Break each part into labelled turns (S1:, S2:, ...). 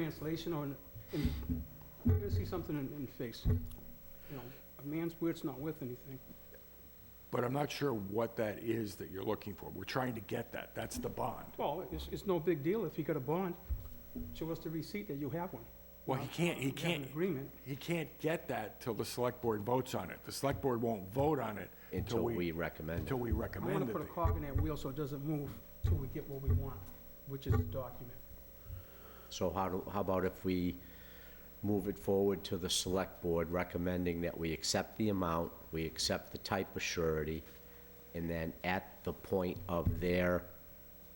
S1: translation or, in- in- you're gonna see something in, in face. You know, a man's word's not worth anything.
S2: But I'm not sure what that is that you're looking for. We're trying to get that. That's the bond.
S1: Well, it's, it's no big deal if you got a bond. Show us the receipt that you have one.
S2: Well, he can't, he
S1: You have an
S2: can't,
S1: agreement.
S2: he can't get that till the select board votes on it. The select board won't vote on it
S3: until we recommend
S2: until
S3: it.
S2: we
S1: I'm gonna
S2: recommend it.
S1: put a cog in that wheel so it doesn't move till we get what we want, which is the document.
S3: So how, do- how about if we move it forward to the select board recommending that we accept the amount, we accept the type of surety, and then at the point of their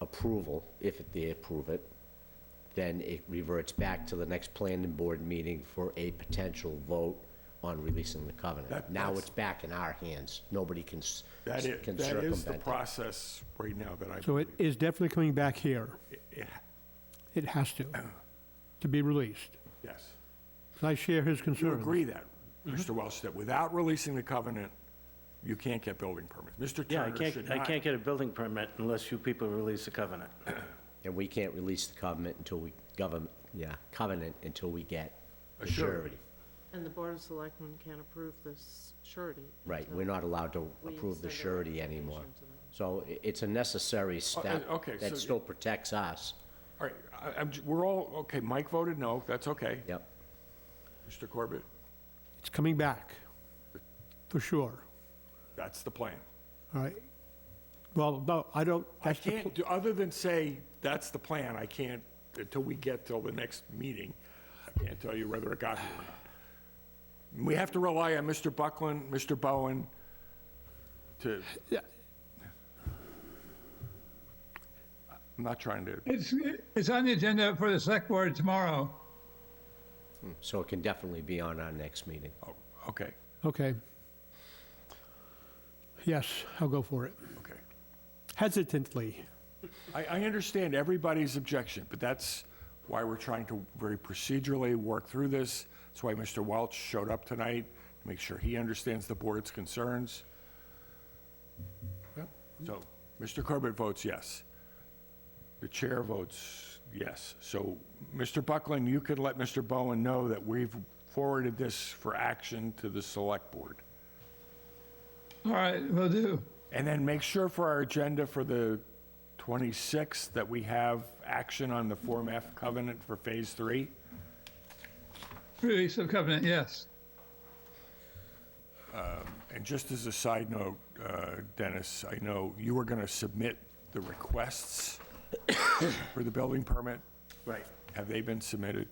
S3: approval, if they approve it, then it reverts back to the next planning board meeting for a potential vote on releasing the covenant.
S2: That-
S3: Now
S2: that's-
S3: it's back in our hands. Nobody can s-
S2: That is,
S3: can
S2: that is the
S3: circumvent that.
S2: process right now that I
S4: So it
S2: believe.
S4: is definitely coming back here. It has to, to be released.
S2: Yes.
S4: And I share his
S2: Do you
S4: concern.
S2: agree that,
S4: Mm-hmm.
S2: Mr. Welch, that without releasing the covenant, you can't get building permits? Mr.
S5: Yeah, I
S2: Turner should
S5: can't,
S2: not.
S5: I can't get a building permit unless you people release the covenant.
S3: And we can't release the covenant until we, govern, yeah, covenant until we get
S2: A
S3: the
S2: surety.
S3: surety.
S6: And the Board of Selectmen can't approve this surety.
S3: Right,
S6: until
S3: we're not allowed to
S6: we
S3: approve the
S6: send a
S3: surety anymore.
S6: recommendation to them.
S3: So i- it's a necessary step
S2: uh, okay, so-
S3: that still protects us.
S2: All right, I- I'm j- we're all, okay, Mike voted no, that's okay.
S3: Yep.
S2: Mr. Corbett,
S4: It's coming back, for sure.
S2: that's the plan.
S4: All right. Well, no, I don't,
S2: I
S4: that's the, pl-
S2: can't, do other than say, that's the plan, I can't, until we get till the next meeting, I can't tell you whether it got here or not. We have to rely on Mr. Buckland, Mr. Bowen, to...
S4: Yeah.
S2: I'm not trying to,
S7: It's, it's on the agenda for the select board tomorrow.
S2: Hmm.
S3: So it can definitely be on our next meeting.
S2: oh, okay,
S4: okay. Yes, I'll go for it.
S2: okay.
S4: Hesitantly.
S2: I, I understand everybody's objection, but that's why we're trying to very procedurally work through this. That's why Mr. Welch showed up tonight, to make sure he understands the board's concerns. So, Mr. Corbett votes yes. The chair votes yes. So, Mr. Buckland, you could let Mr. Bowen know that we've forwarded this for action to the select board.
S7: All right, will do.
S2: And then make sure for our agenda for the 26th that we have action on the Form F covenant for Phase 3.
S7: Release of covenant, yes.
S2: And just as a side note, uh, Dennis, I know you were going to submit the requests for the building permit.
S5: Right.
S2: Have they been submitted?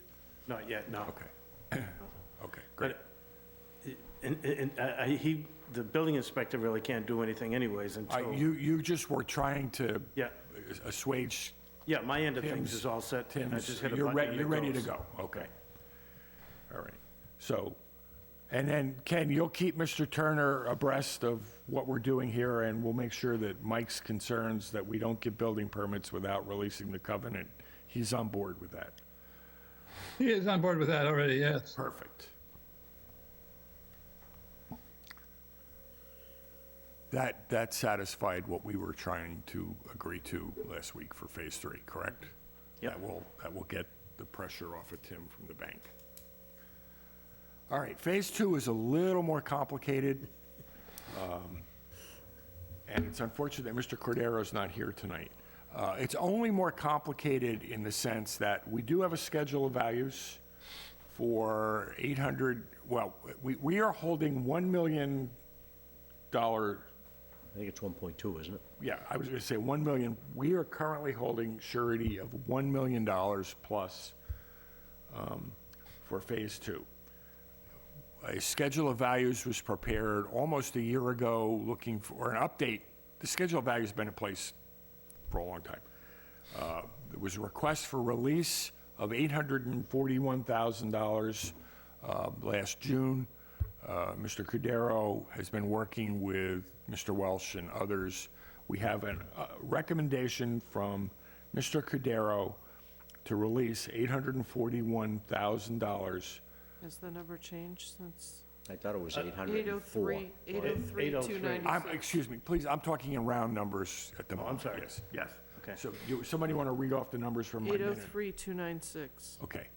S5: Not yet, no.
S2: Okay. Okay, great.
S5: But, and, and, I, I- uh, he, the building inspector really can't do anything anyways
S2: I-
S5: until,
S2: You, you just were trying to
S5: yeah,
S2: assuage
S5: yeah, my end of things
S2: Tim's-
S5: is all set. and I
S2: Tim's,
S5: just hit a
S2: you're
S5: button
S2: ready,
S5: and it
S2: you're ready to
S5: goes.
S2: go, okay. All right, so, and then, Ken, you'll keep Mr. Turner abreast of what we're doing here, and we'll make sure that Mike's concerns that we don't get building permits without releasing the covenant, he's on board with that.
S7: He is on board with that already, yes.
S2: Perfect. That, that satisfied what we were trying to agree to last week for Phase 3, correct?
S5: Yep.
S2: That will, that will get the pressure off of Tim from the bank. All right, Phase 2 is a little more complicated. um, And it's unfortunate that Mr. Cordero's not here tonight. Uh, It's only more complicated in the sense that we do have a schedule of values for 800, well, we, we are holding $1 million,
S3: I think it's 1.2, isn't it?
S2: yeah, I was going to say 1 million, we are currently holding surety of $1 million plus um, for Phase 2. A schedule of values was prepared almost a year ago, looking for an update. The schedule of values has been in place for a long time. Uh, There was a request for release of $841,000 uh, last June. Uh, Mr. Cudero has been working with Mr. Welsh and others. We have a recommendation from Mr. Cudero to release $841,000.
S6: Has the number changed since
S3: I thought it was
S6: Uh,
S3: 804.
S6: 803, 803,
S5: 803.
S2: I'm, excuse me, please, I'm talking in round numbers at the moment.
S5: Oh, sorry.
S2: Yes, yes.
S5: Okay.
S2: So you- somebody want to read off the numbers from my minute?
S6: 803, 296?
S2: Okay.